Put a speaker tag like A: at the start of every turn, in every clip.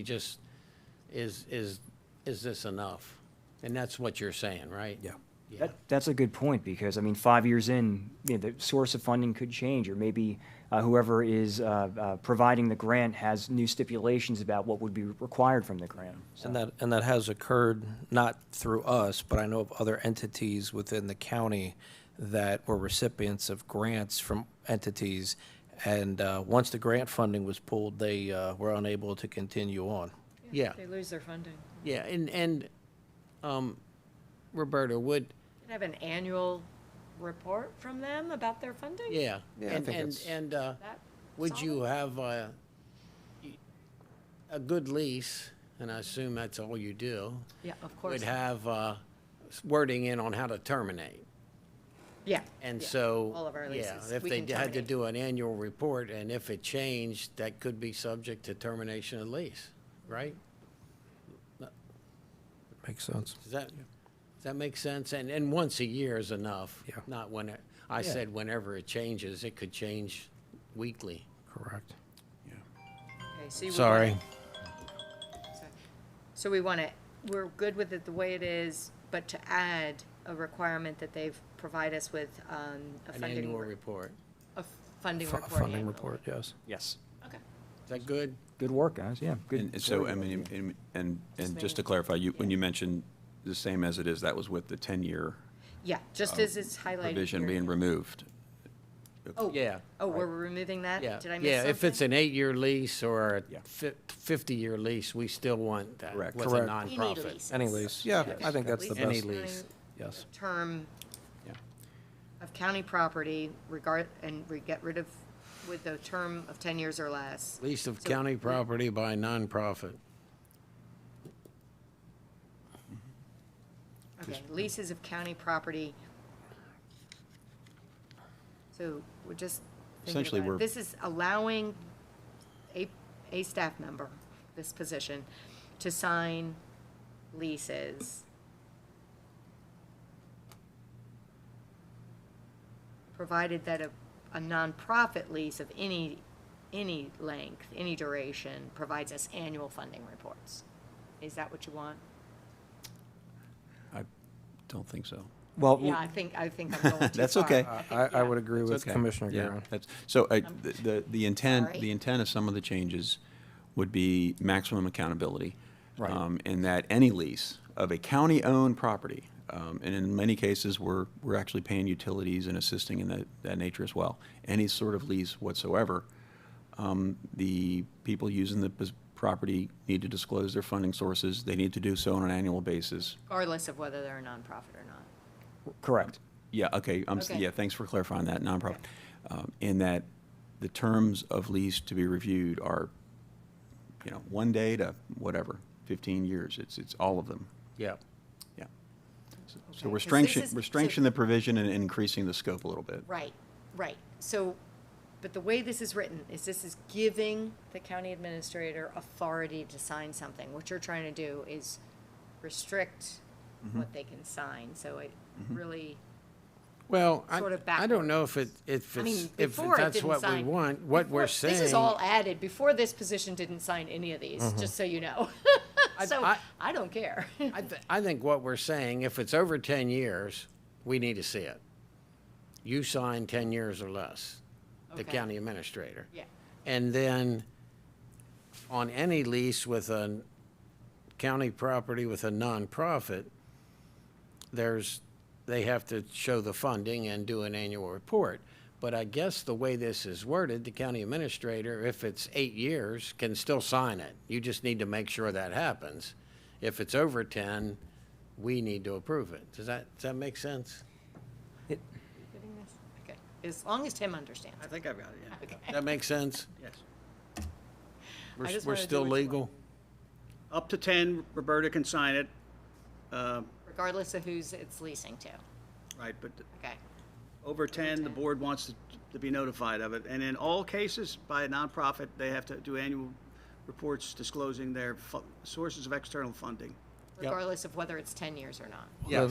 A: You just, is, is, is this enough? And that's what you're saying, right?
B: Yeah.
A: Yeah.
C: That, that's a good point because I mean, five years in, you know, the source of funding could change, or maybe uh, whoever is uh, uh, providing the grant has new stipulations about what would be required from the grant. So
B: And that, and that has occurred, not through us, but I know of other entities within the county that were recipients of grants from entities. And uh, once the grant funding was pulled, they uh, were unable to continue on.
A: Yeah,
D: They lose their funding.
A: yeah, and, and, um, Roberta, would,
D: Could have an annual report from them about their funding?
A: yeah.
B: Yeah, I
A: and-
B: think
A: and-
B: it's-
A: And, uh,
D: That
A: would you
D: solid?
A: have a, a good lease, and I assume that's all you do?
D: Yeah, of
A: Would
D: course.
A: have, uh, wording in on how to terminate?
D: Yeah.
A: And
D: yeah.
A: so.
D: All of our leases.
A: Yeah, if
D: We
A: they
D: can
A: had to
D: terminate.
A: do an annual report and if it changed, that could be subject to termination of lease, right?
B: Makes sense.
A: Does that, does that make sense? And, and once a year is enough.
B: Yeah.
A: Not when, it- I
B: Yeah.
A: said whenever it changes, it could change weekly.
B: Correct.
D: Okay, so you would wanna-
A: Sorry.
D: sorry. So we want to, we're good with it the way it is, but to add a requirement that they've provide us with um, a
A: An
D: funding,
A: annual
D: re-
A: report.
D: a funding
B: Fu-
D: report.
B: Funding
D: annually.
B: report, yes.
C: yes,
D: Okay.
A: Is that good?
C: good work, guys. Yeah, good.
E: And and so,
C: good
E: I mean,
C: idea.
E: and, and- and
D: make
E: just
D: it-
E: to clarify, you, when you mentioned the same as it is, that was with the 10-year
D: Yeah, just as it's highlighted.
E: provision
D: here.
E: being removed.
D: Oh,
A: Yeah.
D: Oh, we're removing that?
A: Yeah.
D: Did I miss something?
A: Yeah, if it's an eight-year lease or a
E: Yeah.
A: fif- fifty-year lease, we still want that
E: Correct.
A: with a
B: Correct.
A: nonprofit.
F: You need leases.
B: Any lease. Yeah, I think that's the
D: Leases.
B: best.
A: Any lease.
B: Yes.
D: term
E: Yeah.
D: of county property regard, and we get rid of, with the term of ten years or less.
A: Lease of
D: So-
A: county property by nonprofit.
D: Okay, leases of county property. So we're just thinking
E: Essentially,
D: about it.
E: we're-
D: This is allowing a, a staff member, this position, to sign leases. Provided that a, a nonprofit lease of any, any length, any duration, provides us annual funding reports. Is that what you want?
E: I don't think so.
C: well,
D: Yeah, I think, I think I'm going too
E: That's
D: far.
E: okay.
B: Uh, I, I I would agree with
E: Okay.
B: Commissioner
E: Yeah,
B: Guerin.
E: that's- So I, the- the, the intent,
D: sorry.
E: the intent of some of the changes would be maximum accountability.
C: Right.
E: um, In that any lease of a county-owned property, um, and in many cases, we're, we're actually paying utilities and assisting in that, that nature as well. Any sort of lease whatsoever, um, the people using the pos- property need to disclose their funding sources. They need to do so on an annual basis.
D: Regardless of whether they're a nonprofit or not.
C: correct.
E: Yeah, okay, I'm, s-
D: Okay.
E: yeah, thanks for clarifying that, nonprofit. Um, In that the terms of lease to be reviewed are, you know, one day to whatever, 15 years, it's, it's all of them,
A: Yeah.
E: yeah. So-
D: Okay,
E: So we're
D: 'cause this
E: strengthening,
D: is-
E: we're
D: so-
E: strengthening the provision and increasing the scope a little bit.
D: Right, right. So, but the way this is written is this is giving the county administrator authority to sign something. What you're trying to do is restrict
E: Mm-hmm.
D: what they can sign, so it really,
A: Well, I,
D: Sort of
A: I don't know if it, if
D: I
A: it's,
D: mean,
A: if
D: before it
A: that's
D: didn't
A: what we
D: sign-
A: want, what we're
D: Before-
A: saying.
D: This is all added. Before this position didn't sign any of these,
E: Mm-hmm.
D: just so you know. So,
A: I-
D: I don't care.
A: I, th- I think what we're saying, if it's over ten years, we need to see it. You sign ten years or less, the
D: Okay.
A: county administrator.
D: Yeah.
A: And then on any lease with a county property with a nonprofit, there's, they have to show the funding and do an annual report. But I guess the way this is worded, the county administrator, if it's eight years, can still sign it. You just need to make sure that happens. If it's over ten, we need to approve it. Does that, does that make sense?
D: Okay. As long as Tim understands. I think I've got it,
A: Does That make sense?
G: Yes.
A: We're,
D: I just
A: we're
D: wanna do
A: still
D: what you want.
A: legal?
G: Up to 10, Roberta can sign it, uh,
D: Regardless of who's it's leasing to.
G: right, but
D: Okay.
G: over 10, the board wants to- to be notified of it. And in all cases, by a nonprofit, they have to do annual reports disclosing their fu- sources of external funding.
D: Regardless of whether it's ten years or not.
A: Yes.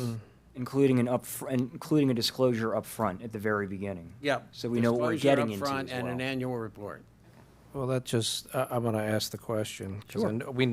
C: Including an up, including a disclosure up front at the very beginning.
A: Yep.
C: So we know what we're
A: Disclosure
C: getting into
A: upfront
C: as
A: And an
C: well.
A: annual report.
B: Well, that just, I, I'm going to ask the question. Sure. We